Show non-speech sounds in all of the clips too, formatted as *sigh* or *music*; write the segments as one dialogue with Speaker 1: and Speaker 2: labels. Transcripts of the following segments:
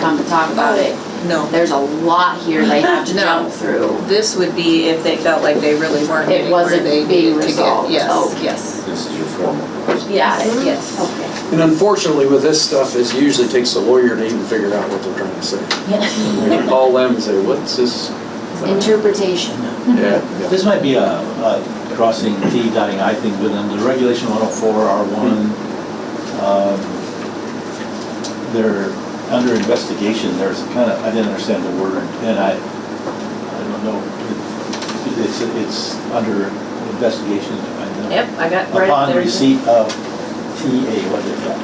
Speaker 1: come and talk about it.
Speaker 2: No.
Speaker 1: There's a lot here they have to
Speaker 2: No.
Speaker 1: jump through.
Speaker 2: This would be if they felt like they really weren't
Speaker 1: It
Speaker 2: getting where
Speaker 1: wasn't
Speaker 2: they
Speaker 1: being
Speaker 2: needed to get.
Speaker 1: resolved. Oh,
Speaker 2: Yes,
Speaker 1: Okay.
Speaker 2: yes.
Speaker 3: This is your formal process.
Speaker 1: Got it.
Speaker 2: Yes.
Speaker 1: Okay.
Speaker 4: And unfortunately, with this stuff, it usually takes a lawyer to even figure out what they're trying to say.
Speaker 1: Yeah.
Speaker 4: You can call them and say, what's this?
Speaker 1: Interpretation.
Speaker 4: Yeah.
Speaker 5: This might be a, a crossing T dotting I thing within the regulation one oh four R one. They're under investigation, there's kind of, I didn't understand the word, and I, I don't know. It- It's, it's under investigation, I know.
Speaker 2: Yep, I got right up
Speaker 5: Upon
Speaker 2: there.
Speaker 5: receipt of TA, what is that?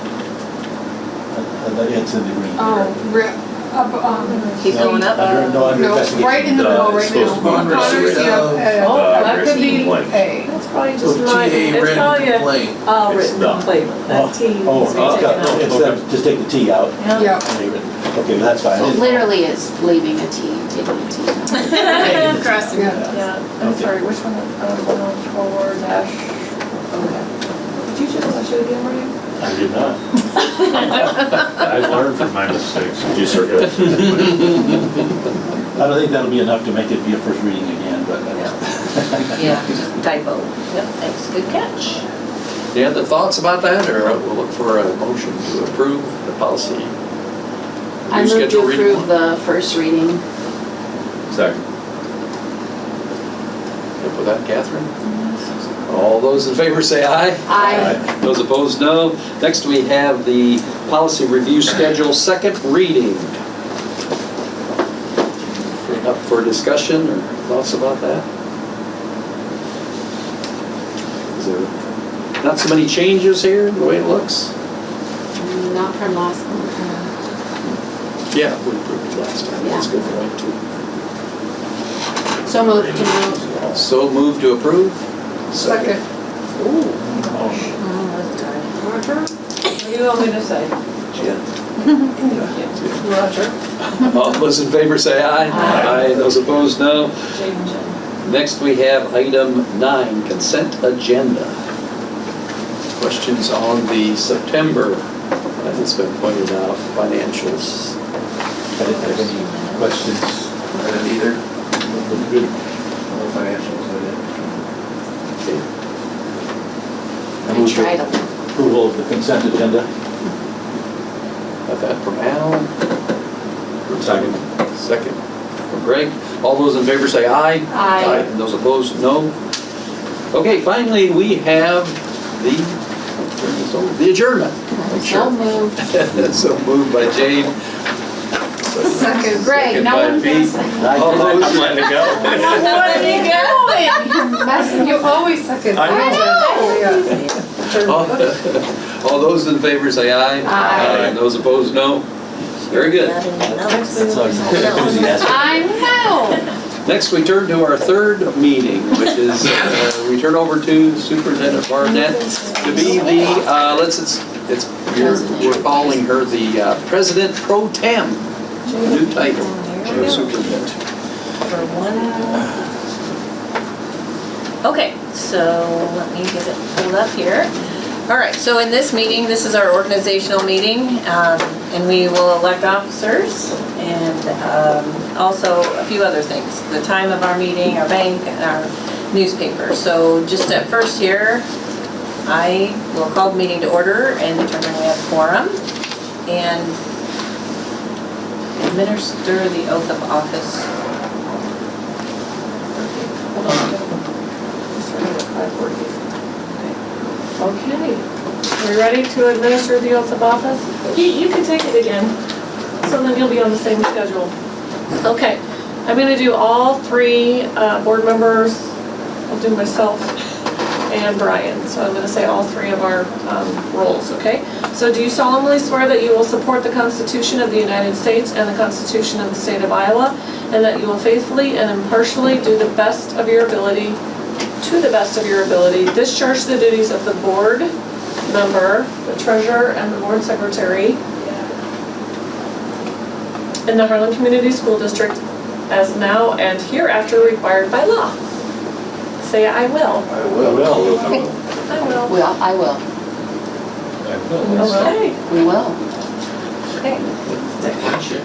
Speaker 5: Uh, uh, It's in the green here.
Speaker 6: Oh, re- up, um,
Speaker 2: Keep
Speaker 5: No,
Speaker 2: going up.
Speaker 5: Under, no, under
Speaker 6: no,
Speaker 5: investigation.
Speaker 6: right in the
Speaker 3: Uh,
Speaker 6: middle,
Speaker 3: it's
Speaker 6: right
Speaker 3: supposed to be
Speaker 6: now.
Speaker 3: under
Speaker 6: Connor's,
Speaker 3: receipt
Speaker 6: yeah,
Speaker 3: of,
Speaker 6: uh,
Speaker 7: Oh,
Speaker 6: That could be
Speaker 3: written
Speaker 6: A.
Speaker 7: That's probably just So my, uh,
Speaker 3: TA
Speaker 7: it's probably
Speaker 3: written
Speaker 7: a,
Speaker 3: complaint.
Speaker 7: a
Speaker 3: It's
Speaker 7: written
Speaker 3: not.
Speaker 7: complaint,
Speaker 5: Oh,
Speaker 7: that T needs
Speaker 5: Oh, it's
Speaker 7: to be taken
Speaker 5: got-
Speaker 7: out.
Speaker 5: it's got- just take the T out.
Speaker 7: *laughs*
Speaker 6: Yeah.
Speaker 5: Okay, that's fine.
Speaker 1: So literally it's leaving a T, and taking a T.
Speaker 2: *laughs* Crossing.
Speaker 6: Yeah.
Speaker 7: Yeah, I'm
Speaker 5: Okay.
Speaker 7: sorry, which one, uh, one oh four dash, okay. Did you just watch it again, were you?
Speaker 5: I did
Speaker 8: *laughs*
Speaker 5: not.
Speaker 8: I've learned from my mistakes.
Speaker 3: Yes, sir, yes.
Speaker 5: I don't think that'll be enough to make it be a first reading again, but uh, *laughs*
Speaker 2: Yeah, just typo. Yep, thanks, good catch.
Speaker 4: Do you have the thoughts about that, or we'll look for a motion to approve the policy?
Speaker 1: I move to
Speaker 4: Schedule reading
Speaker 1: approve
Speaker 4: one.
Speaker 1: the first reading.
Speaker 3: Second.
Speaker 4: Up with that, Catherine? All those in favor say aye.
Speaker 1: I.
Speaker 4: Those opposed, no. Next, we have the policy review schedule, second reading. Up for discussion or thoughts about that? Is there not so many changes here, the way it looks?
Speaker 1: Not from last month.
Speaker 4: Yeah. We approved it last time, that's a good point too.
Speaker 1: So moved to move.
Speaker 4: So move to approve?
Speaker 6: Second.
Speaker 5: oh,
Speaker 7: What do you want me to say?
Speaker 4: *laughs* Yeah.
Speaker 7: Roger.
Speaker 4: All those in favor say aye.
Speaker 1: Aye.
Speaker 4: Those opposed, no.
Speaker 2: *laughs*
Speaker 7: Change it.
Speaker 4: Next, we have item nine, consent agenda. Questions on the September, as it's been pointed out, financials.
Speaker 5: I didn't have any questions.
Speaker 3: I didn't either. Good. No financials,
Speaker 1: I tried a lot.
Speaker 5: Approval of the consent agenda.
Speaker 4: Got that from Al. Second. Second from Greg. All those in favor say aye.
Speaker 1: Aye.
Speaker 4: And those opposed, no. Okay, finally, we have the, turn this over, the adjournment.
Speaker 1: So moved.
Speaker 4: *laughs* So moved by Jane.
Speaker 6: Second.
Speaker 1: Greg,
Speaker 4: Second
Speaker 1: no
Speaker 4: by
Speaker 1: one's
Speaker 4: Pete.
Speaker 1: gonna.
Speaker 4: *laughs* All
Speaker 5: I
Speaker 4: those
Speaker 3: I'm letting it go.
Speaker 1: What are you going?
Speaker 6: You're messing, you always second.
Speaker 3: I know.
Speaker 6: know.
Speaker 4: All
Speaker 6: Oh,
Speaker 4: *laughs* all those in favor say aye.
Speaker 1: Aye.
Speaker 4: And those opposed, no. Very good.
Speaker 5: That's all enthusiastic.
Speaker 1: I know.
Speaker 4: Next, we turn to our third meeting, which is, uh, we turn over to Superintendent Barnett to be the, uh, let's, it's, it's, you're- we're calling her the uh, President Pro Tem, new title. Superintendent.
Speaker 2: Okay, so let me get it pulled up here. All right, so in this meeting, this is our organizational meeting, um, and we will elect officers and um, also a few other things, the time of our meeting, our bank, and our newspaper. So just at first here, I will call the meeting to order and determine we have quorum and administer the oath of office.
Speaker 7: Hold on. Just read it, 5:48. Okay, are we ready to administer the oath of office? You, you can take it again, so then you'll be on the same schedule. Okay, I'm gonna do all three, uh, board members, I'll do myself and Brian, so I'm gonna say all three of our, um, roles, okay? So do you solemnly swear that you will support the Constitution of the United States and the Constitution of the State of Iowa, and that you will faithfully and impartially do the best of your ability, to the best of your ability, discharge the duties of the board member, the treasurer, and the board secretary in the Harlan Community School District as now and hereafter required by law. Say, I will.
Speaker 3: I will. I will.
Speaker 7: I will.
Speaker 1: Well, I will.
Speaker 5: I will.
Speaker 7: Okay.
Speaker 1: We will.
Speaker 7: Okay.